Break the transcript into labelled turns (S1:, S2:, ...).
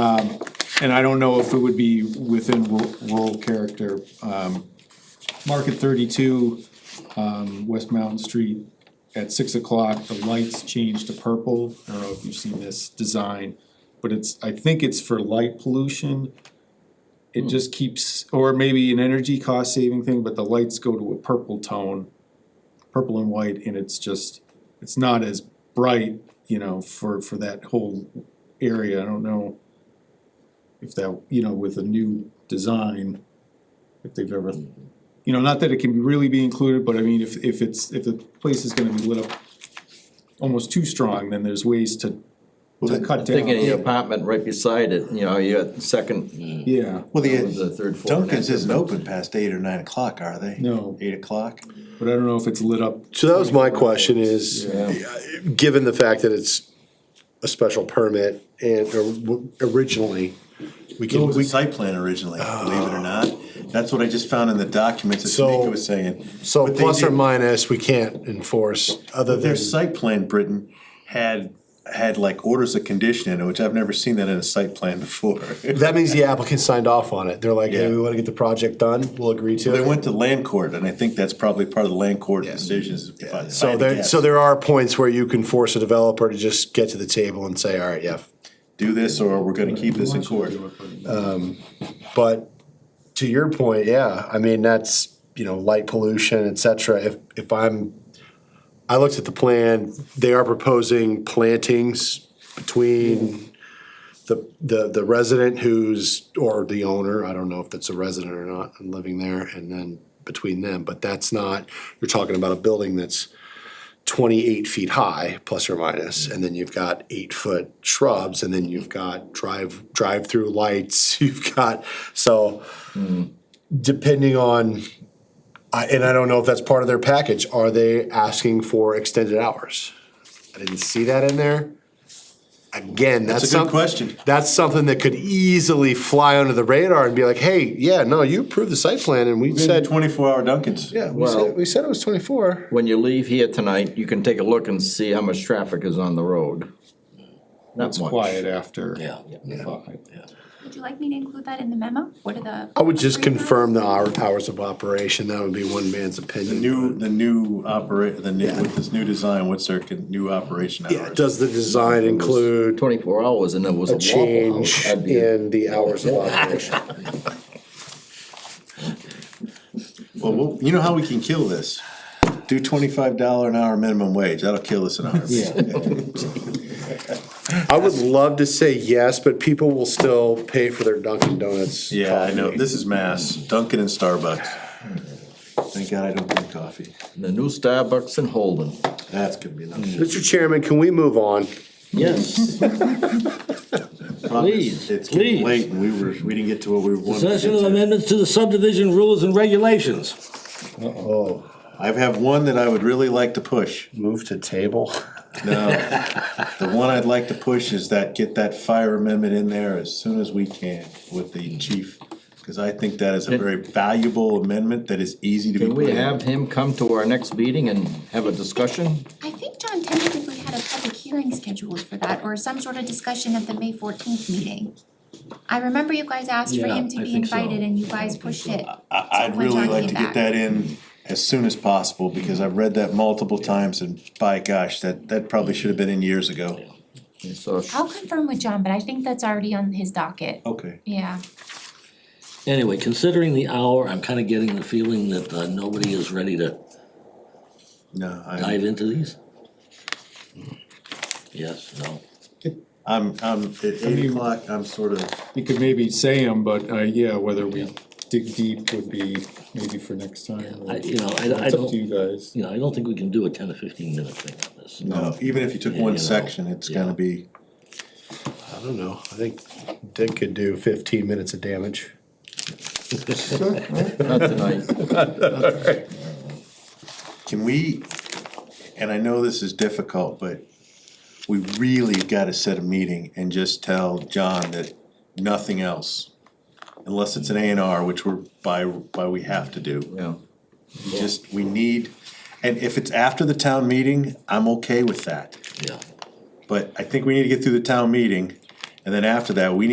S1: And I don't know if it would be within ru- rural character. Um, Market thirty-two, um, West Mountain Street, at six o'clock, the lights change to purple. I don't know if you've seen this design, but it's, I think it's for light pollution. It just keeps, or maybe an energy cost saving thing, but the lights go to a purple tone, purple and white, and it's just, it's not as bright, you know, for, for that whole area. I don't know if that, you know, with a new design, if they've ever, you know, not that it can really be included, but I mean, if, if it's, if the place is gonna be lit up almost too strong, then there's ways to, to cut down.
S2: Thinking of the apartment right beside it, you know, you got the second,
S1: Yeah,
S3: Well,
S2: the
S3: the
S2: third floor.
S3: Dunkin's isn't open past eight or nine o'clock, are they?
S1: No.
S3: Eight o'clock?
S1: but I don't know if it's lit up,
S4: So that was my question is, uh, given the fact that it's a special permit and or- originally, we
S3: It
S4: can,
S3: was a
S4: we,
S3: site plan originally, believe it or not. That's what I just found in the documents that
S4: So-
S3: Tamika was saying.
S4: so
S3: But they
S4: plus or
S3: did-
S4: minus, we can't enforce other
S3: Their
S4: than,
S3: site plan, Britain, had, had like orders of condition in it, which I've never seen that in a site plan before.
S4: that means the applicant signed off on it. They're like, hey,
S3: Yeah.
S4: we wanna get the project done, we'll agree to
S3: They
S4: it.
S3: went to land court, and I think that's probably part of the land court decisions. if I- if I had
S4: So
S3: to
S4: there,
S3: guess.
S4: so there are points where you can force a developer to just get to the table and say, all right, yeah.
S3: Do this, or we're gonna keep this in court.
S4: But to your point, yeah, I mean, that's, you know, light pollution, et cetera. If, if I'm, I looked at the plan, they are proposing plantings between the, the, the resident who's, or the owner, I don't know if that's a resident or not, and living there, and then between them, but that's not, you're talking about a building that's twenty-eight feet high, plus or minus, and then you've got eight-foot shrubs, and then you've got drive, drive-through lights, you've got, so depending on, I, and I don't know if that's part of their package, are they asking for extended hours? I didn't see that in there. Again, that's
S3: That's a good
S4: something,
S3: question.
S4: that's something that could easily fly under the radar and be like, hey, yeah, no, you approved the site plan, and we said,
S3: Twenty-four hour Dunkins.
S4: yeah, we
S2: Well-
S4: said, we said it was twenty-four.
S2: When you leave here tonight, you can take a look and see how much traffic is on the road. Not
S1: it's
S2: much.
S1: quiet after.
S3: Yeah.
S1: five.
S5: Would you like me to include that in the memo? What are the?
S4: I would just confirm the hour, hours of operation, that would be one man's
S3: The
S4: opinion.
S3: new, the new operate, the new, with this new design, what's their con- new operation
S4: Yeah,
S3: hours?
S4: does the design include
S2: Twenty-four hours and it was a
S4: a
S2: Waffle
S4: change
S2: House. I'd be-
S4: in the hours of operation?
S3: Well, we'll- you know how we can kill this? Do twenty-five dollar an hour minimum wage, that'll kill this in a heartbeat.
S4: I would love to say yes, but people will still pay for their Dunkin' Donuts.
S3: Yeah, I know, this is mass, Dunkin' and Starbucks. Thank God I don't drink coffee,
S2: The new Starbucks in Holden.
S3: that's gonna be enough.
S4: Mr. Chairman, can we move on?
S6: Yes, Please,
S3: It's getting
S6: please.
S3: late and we were, we didn't get to what we wanted to
S6: possession of
S3: get to.
S6: amendments to the subdivision rules and regulations.
S3: I have one that I would really like to push.
S4: Move to table?
S3: No, the one I'd like to push is that, get that fire amendment in there as soon as we can with the chief. Cause I think that is a very valuable amendment that is easy to be
S2: Can
S3: put
S2: we
S3: in.
S2: have him come to our next meeting and have a discussion?
S5: I think John tentatively had a public hearing scheduled for that or some sort of discussion at the May fourteenth meeting. I remember you guys asked for
S6: Yeah,
S5: him to
S6: I
S5: be
S6: think so.
S5: invited and you guys pushed it.
S3: I, I'd
S5: when
S3: really
S5: John
S3: like
S5: came
S3: to
S5: back.
S3: get that in as soon as possible, because I've read that multiple times, and by gosh, that, that probably should have been in years ago.
S2: So,
S5: I'll confirm with John, but I think that's already on his docket.
S3: Okay.
S5: Yeah,
S6: Anyway, considering the hour, I'm kinda getting the feeling that uh, nobody is ready to
S3: No, I,
S6: dive into these. Yes, no.
S3: I'm, I'm, at eight o'clock, I'm sort of,
S1: You could maybe say them, but, uh, yeah, whether we dig deep would be maybe for next time. or-
S6: I, you know, I, I
S1: It's up
S6: don't,
S1: to you
S6: you
S1: guys.
S6: know, I don't think we can do a ten or fifteen minute thing on this.
S3: no, even if you took
S6: Yeah, you
S3: one
S6: know,
S3: section, it's gonna
S6: yeah.
S3: be,
S4: I don't know, I think Dick could do fifteen minutes of damage.
S2: not tonight.
S3: can we, and I know this is difficult, but we really gotta set a meeting and just tell John that nothing else, unless it's an A and R, which we're, by, by we have to do.
S2: Yeah.
S3: Just, we need, and if it's after the town meeting, I'm okay with that.
S6: Yeah.
S3: But I think we need to get through the town meeting, and then after that, we need